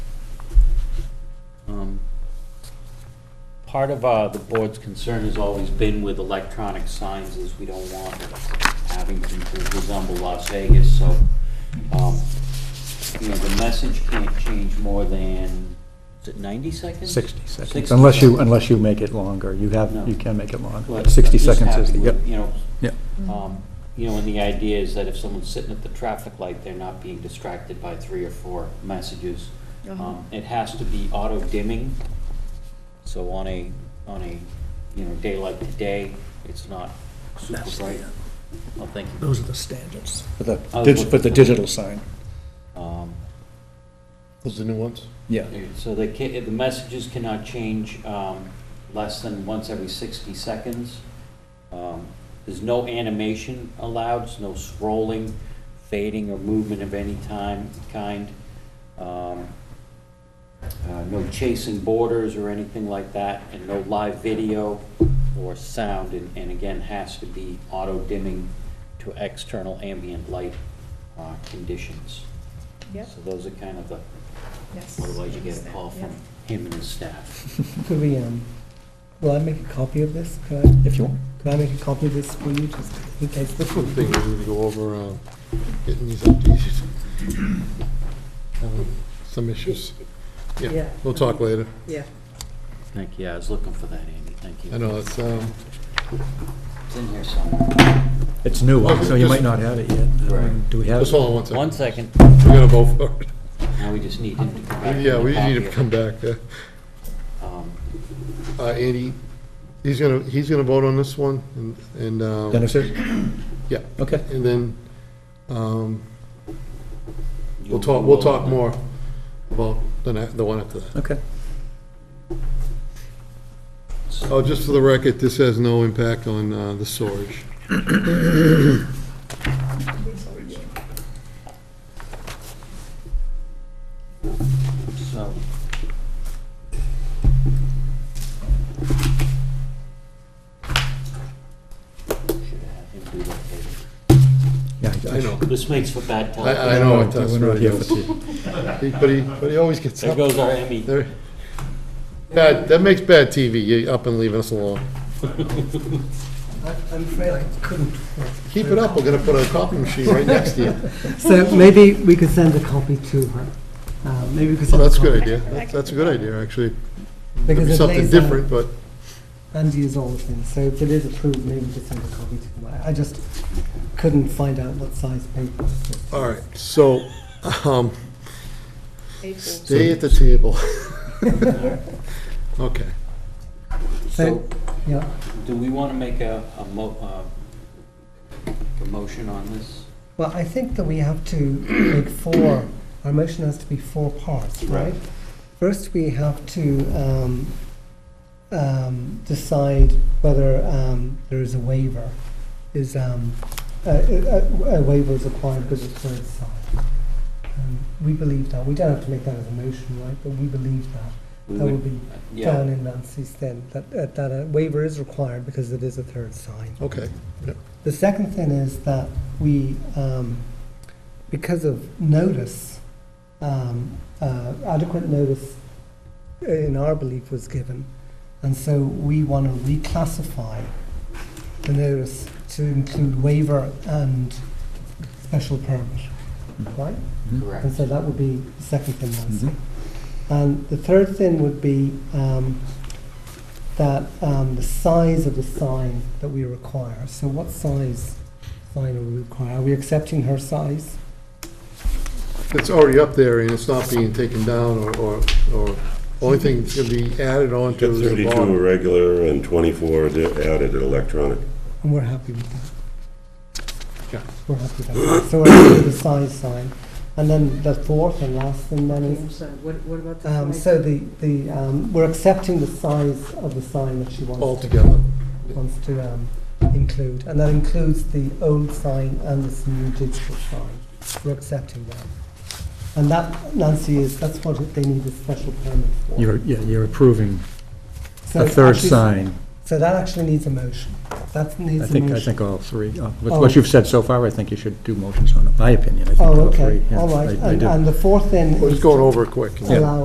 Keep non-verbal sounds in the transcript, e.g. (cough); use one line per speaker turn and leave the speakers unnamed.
Um, part of uh, the board's concern has always been with electronic signs, is we don't want Abington to resemble Las Vegas, so, um, you know, the message can't change more than, is it 90 seconds?
60 seconds,
60
unless you,
seconds.
unless you make it longer. You
No.
have, you can make it longer.
But
60
I'm just
seconds is,
happy
the
with,
yep,
You know,
yep.
um, you know, and the idea is that if someone's sitting at the traffic light, they're not being distracted by three or four messages.
Uh-huh.
Um, It has to be auto dimming, so on a, on a, you know, day like today, it's not super
That's the, uh,
bright. Oh, thank you.
Those are the standards.
For the,
I was
dig-
looking
for the
for-
digital sign,
Um,
Those are the new ones?
yeah.
So the, ca- the messages cannot change um, less than once every 60 seconds. Um, There's no animation allowed, there's no scrolling, fading, or movement of any time, kind. Um, uh, No chasing borders or anything like that, and no live video or sound, and and again, has to be auto-dimming to external ambient light uh, conditions.
Yep,
So those are kind of the
yes.
Otherwise, you get a call from him and his staff.
Could we, um, will I make a copy of this? Could I,
If you want,
could I make a copy of this for you, just in case?
That's one thing we're gonna go over, uh, getting these updated. Um, Some issues. Yeah,
Yeah.
we'll talk later.
Yeah.
Thank you, I was looking for that, Andy, thank you.
I know, it's, um,
It's in here somewhere.
it's new, so you might not have it yet. Um,
Right.
Do we have?
just
it?
hold on one second.
One second,
We're gonna vote for it. (laughs)
now we just need him to come back.
Yeah,
with
we
a copy
need to
of-
come back. uh,
um,
Uh, Andy, he's gonna, he's gonna vote on this one, and, and, um,
Dennis is?
yeah,
Okay.
and then, um,
you'll
we'll talk,
do
we'll
all
talk
of that.
more about the, ne- the one after that.
Okay.
So,
Oh, just for the record, this has no impact on, uh, the storage.
so, Should have him do that later.
Yeah,
I know,
This makes for bad
I, I
television.
know it
We're
does,
not
really
here
does.
for tea.
He- But he, but he always gets
There
up.
goes our Emmy.
There- Bad, that makes bad TV, you up and leaving us alone.
I'm afraid I couldn't.
Keep it up, we're gonna put a copy machine right next to
(laughs)
you.
So maybe we could send a copy to her. Uh, Maybe we could
So
send a
Oh, that's
copy.
a good idea, That's- that's a good idea, actually. It'd
Because
be
it
something
lays out-
different, but
And use all the things, so if it is approved, maybe we could send a copy to them. I- I just couldn't find out what size paper.
All right, so, um,
April.
stay at the table. (laughs) Okay,
So,
Yeah,
do we want to make a, a mo, uh, a motion on this?
well, I think that we have to make four, our motion has to be four parts, right? First, we have to um, um, decide whether um, there is a waiver, is, um, a- a a waiver is required because it's third side. Um, We believe that, we don't have to make that as a motion, right, but we believe that,
We
that
would-
would be
Yeah,
down in Nancy's then, that, that- that a waiver is required because it is a third sign.
okay,
The second thing is that we, um, because of notice, um, uh, adequate notice uh, in our belief was given, and so we want to reclassify the notice to include waiver and special permit, right?
correct.
And so that would be the second thing, Nancy.
Mhm.
And the third thing would be um, that um, the size of the sign that we require. So what size sign are we requiring? Are we accepting her size?
it's already up there and it's not being taken down or, or, or, only thing that's gonna be added on to
Got
is the
32
bottom.
regular and 24 di- added electronic.
And we're happy with that.
Yeah.
We're happy with that. So we're happy with the size sign. And then the fourth and last thing then
I'm
is,
sorry, what, what about
um,
the
so
size?
the, the, um, we're accepting the size of the sign that she wants. to-
Altogether,
Wants to um, include, and that includes the old sign and this new digital sign. We're accepting that. And that, Nancy, is, that's what they need a special permit for.
You're, yeah, you're approving
So
a third
actually-
sign.
So that actually needs a motion. That
I
needs a
think,
motion.
I think all three. Uh, With
Oh.
what you've said so far, I think you should do motions on it, my opinion. I think
Oh,
all
okay,
three, yeah,
all right.
I- I
And
do.
and the fourth then
we're
is
just going over it quick.
allow